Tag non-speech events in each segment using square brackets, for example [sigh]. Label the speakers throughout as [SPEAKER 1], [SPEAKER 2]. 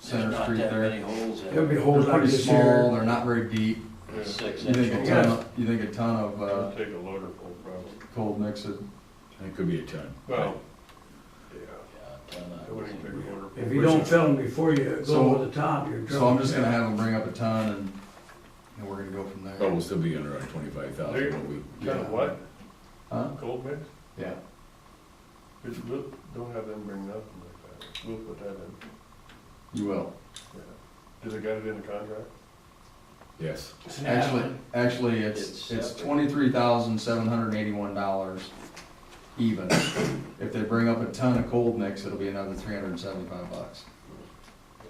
[SPEAKER 1] center
[SPEAKER 2] not
[SPEAKER 1] street
[SPEAKER 2] that
[SPEAKER 1] there.
[SPEAKER 2] many holes in it.
[SPEAKER 3] It would be
[SPEAKER 1] They're
[SPEAKER 3] holes like
[SPEAKER 1] pretty
[SPEAKER 3] this
[SPEAKER 1] small,
[SPEAKER 3] here.
[SPEAKER 1] they're not very deep.
[SPEAKER 2] It's Six
[SPEAKER 1] You
[SPEAKER 2] inch
[SPEAKER 1] think a
[SPEAKER 2] holes.
[SPEAKER 1] ton, of- you think a ton of, uh,
[SPEAKER 4] It'll take a loader full probably.
[SPEAKER 1] cold mix it,
[SPEAKER 5] It could be a ton.
[SPEAKER 4] Well, yeah,
[SPEAKER 2] Yeah, a ton of-
[SPEAKER 4] it wouldn't take a loader full.
[SPEAKER 3] If you don't fill them before you go
[SPEAKER 1] So-
[SPEAKER 3] over the top, you're in trouble.
[SPEAKER 1] so I'm just gonna have them bring up a ton and, and we're gonna go from
[SPEAKER 5] But
[SPEAKER 2] Oh.
[SPEAKER 1] there.
[SPEAKER 5] we'll still be under our twenty-five thousand when we.
[SPEAKER 4] Kind of what?
[SPEAKER 1] Huh?
[SPEAKER 4] Cold mix?
[SPEAKER 1] Yeah,
[SPEAKER 4] It's- we'll- Don't have them bring nothing like that. We'll put that in.
[SPEAKER 1] you will.
[SPEAKER 4] yeah. Do they got it in the contract?
[SPEAKER 5] Yes.
[SPEAKER 1] Actually, actually, it's,
[SPEAKER 2] It's
[SPEAKER 1] it's
[SPEAKER 2] separate.
[SPEAKER 1] twenty-three thousand, seven hundred and eighty-one dollars even. If they bring up a ton of cold mix, it'll be another three hundred and seventy-five bucks.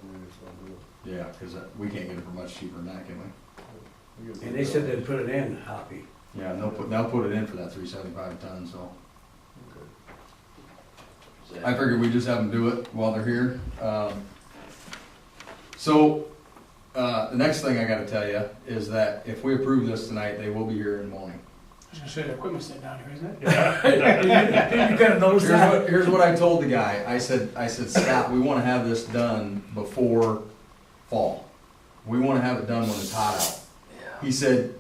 [SPEAKER 4] And we just don't do it.
[SPEAKER 1] Yeah, cause that- we can't get it for much cheaper than that, can we?
[SPEAKER 4] We get-
[SPEAKER 3] And they said they'd put it in,
[SPEAKER 1] [laughs]
[SPEAKER 3] Hoppy.
[SPEAKER 1] Yeah, and they'll put, they'll put it in for that three seventy-five a ton, so.
[SPEAKER 4] Okay.
[SPEAKER 2] Is that-
[SPEAKER 1] I figured we just have them do it while they're here. Um, So, uh, the next thing I gotta tell you is that if we approve this tonight, they will be here in the morning.
[SPEAKER 6] I was gonna say, the equipment's not down here, isn't it?
[SPEAKER 3] You gotta notice
[SPEAKER 1] Here's what, here's what I told the guy. I said, I said, Scott, we wanna have this done before fall. We wanna have it done when it's hot out. He said,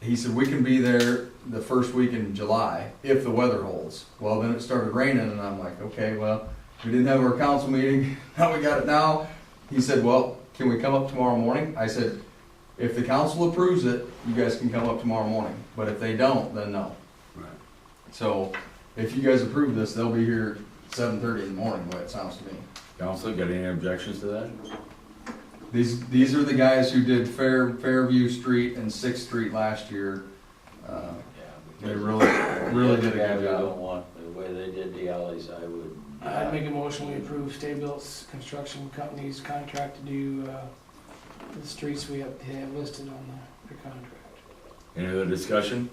[SPEAKER 1] he said, we can be there the first week in July if the weather holds. Well, then it started raining and I'm like, okay, well, we didn't have our council meeting, [laughs] now we got it now. He said, well, can we come up tomorrow morning? I said, if the council approves it, you guys can come up tomorrow morning, but if they don't, then no.
[SPEAKER 5] Right.
[SPEAKER 1] So if you guys approve this, they'll be here seven thirty in the morning, the way it sounds to me.
[SPEAKER 5] Council, got any objections to that?
[SPEAKER 1] These, these are the guys who did Fair, Fairview Street and Sixth Street last year. Uh,
[SPEAKER 2] Yeah, because-
[SPEAKER 1] They really, really did a
[SPEAKER 2] Yeah,
[SPEAKER 1] good
[SPEAKER 2] we don't
[SPEAKER 1] job.
[SPEAKER 2] want, the way they did the alleys, I would.
[SPEAKER 6] I'd make a motion, we approve Stay-Built's construction company's contract to do, uh, the streets we have, they have listed on the, their contract.
[SPEAKER 5] Any other discussion?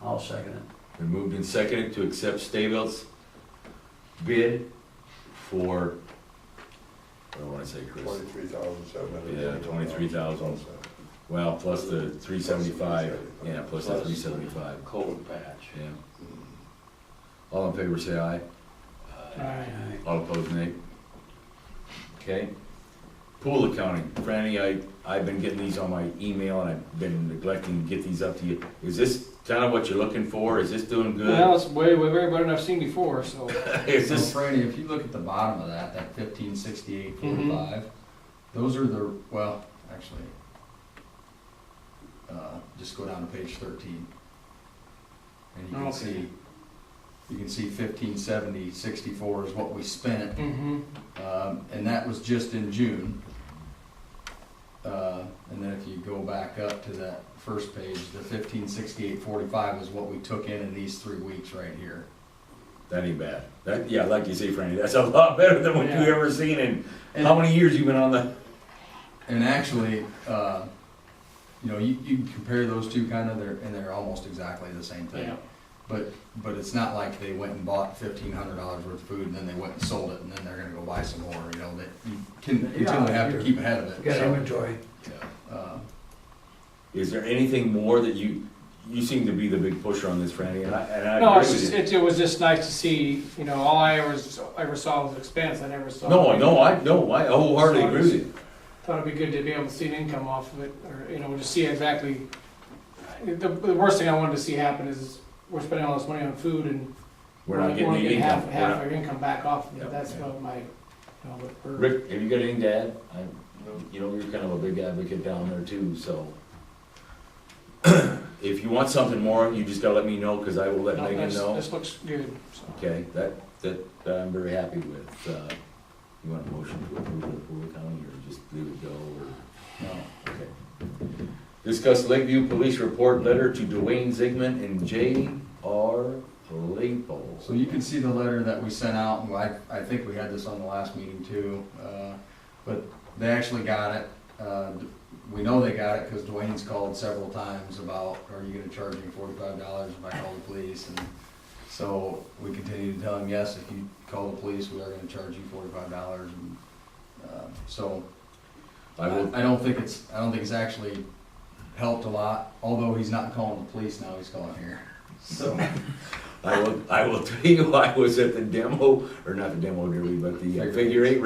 [SPEAKER 2] I'll second it.
[SPEAKER 5] Been moved and seconded to accept Staybelt's bid for, what do I wanna say, Chris?
[SPEAKER 7] Twenty-three thousand seven hundred.
[SPEAKER 5] Yeah, 23,000. Well, plus the three seventy-five, yeah, plus the
[SPEAKER 2] Plus-
[SPEAKER 5] three seventy-five,
[SPEAKER 2] uh, Cold patch.
[SPEAKER 5] yeah.
[SPEAKER 4] Mm.
[SPEAKER 5] All in favor, say aye.
[SPEAKER 2] Uh,
[SPEAKER 6] Alright,
[SPEAKER 5] All opposed, nay. Okay. Pool accounting, Franny, I, I've been getting these on my email and I've been neglecting to get these up to you. Is this kind of what you're looking for? Is this doing
[SPEAKER 6] well,
[SPEAKER 5] good?
[SPEAKER 6] it's way, way better than I've seen before, so.
[SPEAKER 5] [laughs] Is
[SPEAKER 1] So
[SPEAKER 5] this,
[SPEAKER 1] Franny, if you look at the bottom of that, that fifteen sixty-eight forty-five,
[SPEAKER 5] Mm-hmm.
[SPEAKER 1] those are the, well, actually, uh, just go down to page thirteen. And you can
[SPEAKER 6] Okay.
[SPEAKER 1] see, you can see fifteen seventy sixty-four is what we spent
[SPEAKER 6] Mm-hmm.
[SPEAKER 1] Um, and that was just in June. Uh, and then if you go back up to that first page, the fifteen sixty-eight forty-five is what we took in in these three weeks right here.
[SPEAKER 5] that ain't bad. That, yeah, like you say, Franny, that's a lot better than what you
[SPEAKER 6] Yeah.
[SPEAKER 5] ever seen in,
[SPEAKER 1] And-
[SPEAKER 5] how many years you been on the?
[SPEAKER 1] And actually, uh, you know, you, you can compare those two kind of, they're, and they're almost exactly the same thing.
[SPEAKER 6] Yeah.
[SPEAKER 1] But, but it's not like they went and bought fifteen hundred dollars worth of food and then they went and sold it and then they're gonna go buy some more, you know, that you can, you
[SPEAKER 3] Yeah,
[SPEAKER 1] have to
[SPEAKER 3] you-
[SPEAKER 1] keep ahead of it.
[SPEAKER 3] You got
[SPEAKER 1] so,
[SPEAKER 3] inventory.
[SPEAKER 1] yeah, uh,
[SPEAKER 5] Is there anything more that you, you seem to be the big pusher on this, Franny, and I, and I
[SPEAKER 6] No,
[SPEAKER 5] agree
[SPEAKER 6] it's
[SPEAKER 5] with
[SPEAKER 6] just,
[SPEAKER 5] you.
[SPEAKER 6] it, it was just nice to see, you know, all I ever, s- ever saw was expense, I never saw.
[SPEAKER 5] No, no, I, no, I wholeheartedly agree with you.
[SPEAKER 6] Thought it'd be good to be able to see an income off of it, or, you know, to see exactly, the, the worst thing I wanted to see happen is we're spending all this money on food and
[SPEAKER 5] We're not getting any
[SPEAKER 6] half-
[SPEAKER 5] income. We're
[SPEAKER 6] Half
[SPEAKER 5] not-
[SPEAKER 6] our income back off, of
[SPEAKER 5] Yep.
[SPEAKER 6] it. that's what my, you know, but we're-
[SPEAKER 5] Rick, have you got anything to add? I,
[SPEAKER 4] No.
[SPEAKER 5] you know, you're kind of a big advocate down there too, so. [clears throat] If you want something more, you just gotta let me know, cause I will let
[SPEAKER 6] no,
[SPEAKER 5] Megan
[SPEAKER 6] this,
[SPEAKER 5] know.
[SPEAKER 6] this looks good, so.
[SPEAKER 5] Okay, that, that, that I'm very happy with. Uh, You want a motion to approve the pool accounting or just leave it go or?
[SPEAKER 1] no.
[SPEAKER 5] okay. Discuss Lakeview Police Report Letter to Dwayne Zigman and J R Lapel.
[SPEAKER 1] So you can see the letter that we sent out, and I, I think we had this on the last meeting too, uh, but they actually got it. Uh, We know they got it because Dwayne's called several times about, are you gonna charge me forty-five dollars if I call the police? And so we continue to tell him, yes, if you call the police, we are gonna charge you forty-five dollars. And uh, So
[SPEAKER 5] I will,
[SPEAKER 1] I don't think it's, I don't think it's actually helped a lot, although he's not calling the police now, he's calling here. So,
[SPEAKER 5] [laughs] I will, I will tell you, I was at the demo, or not the demo derby, but the uh, figure eight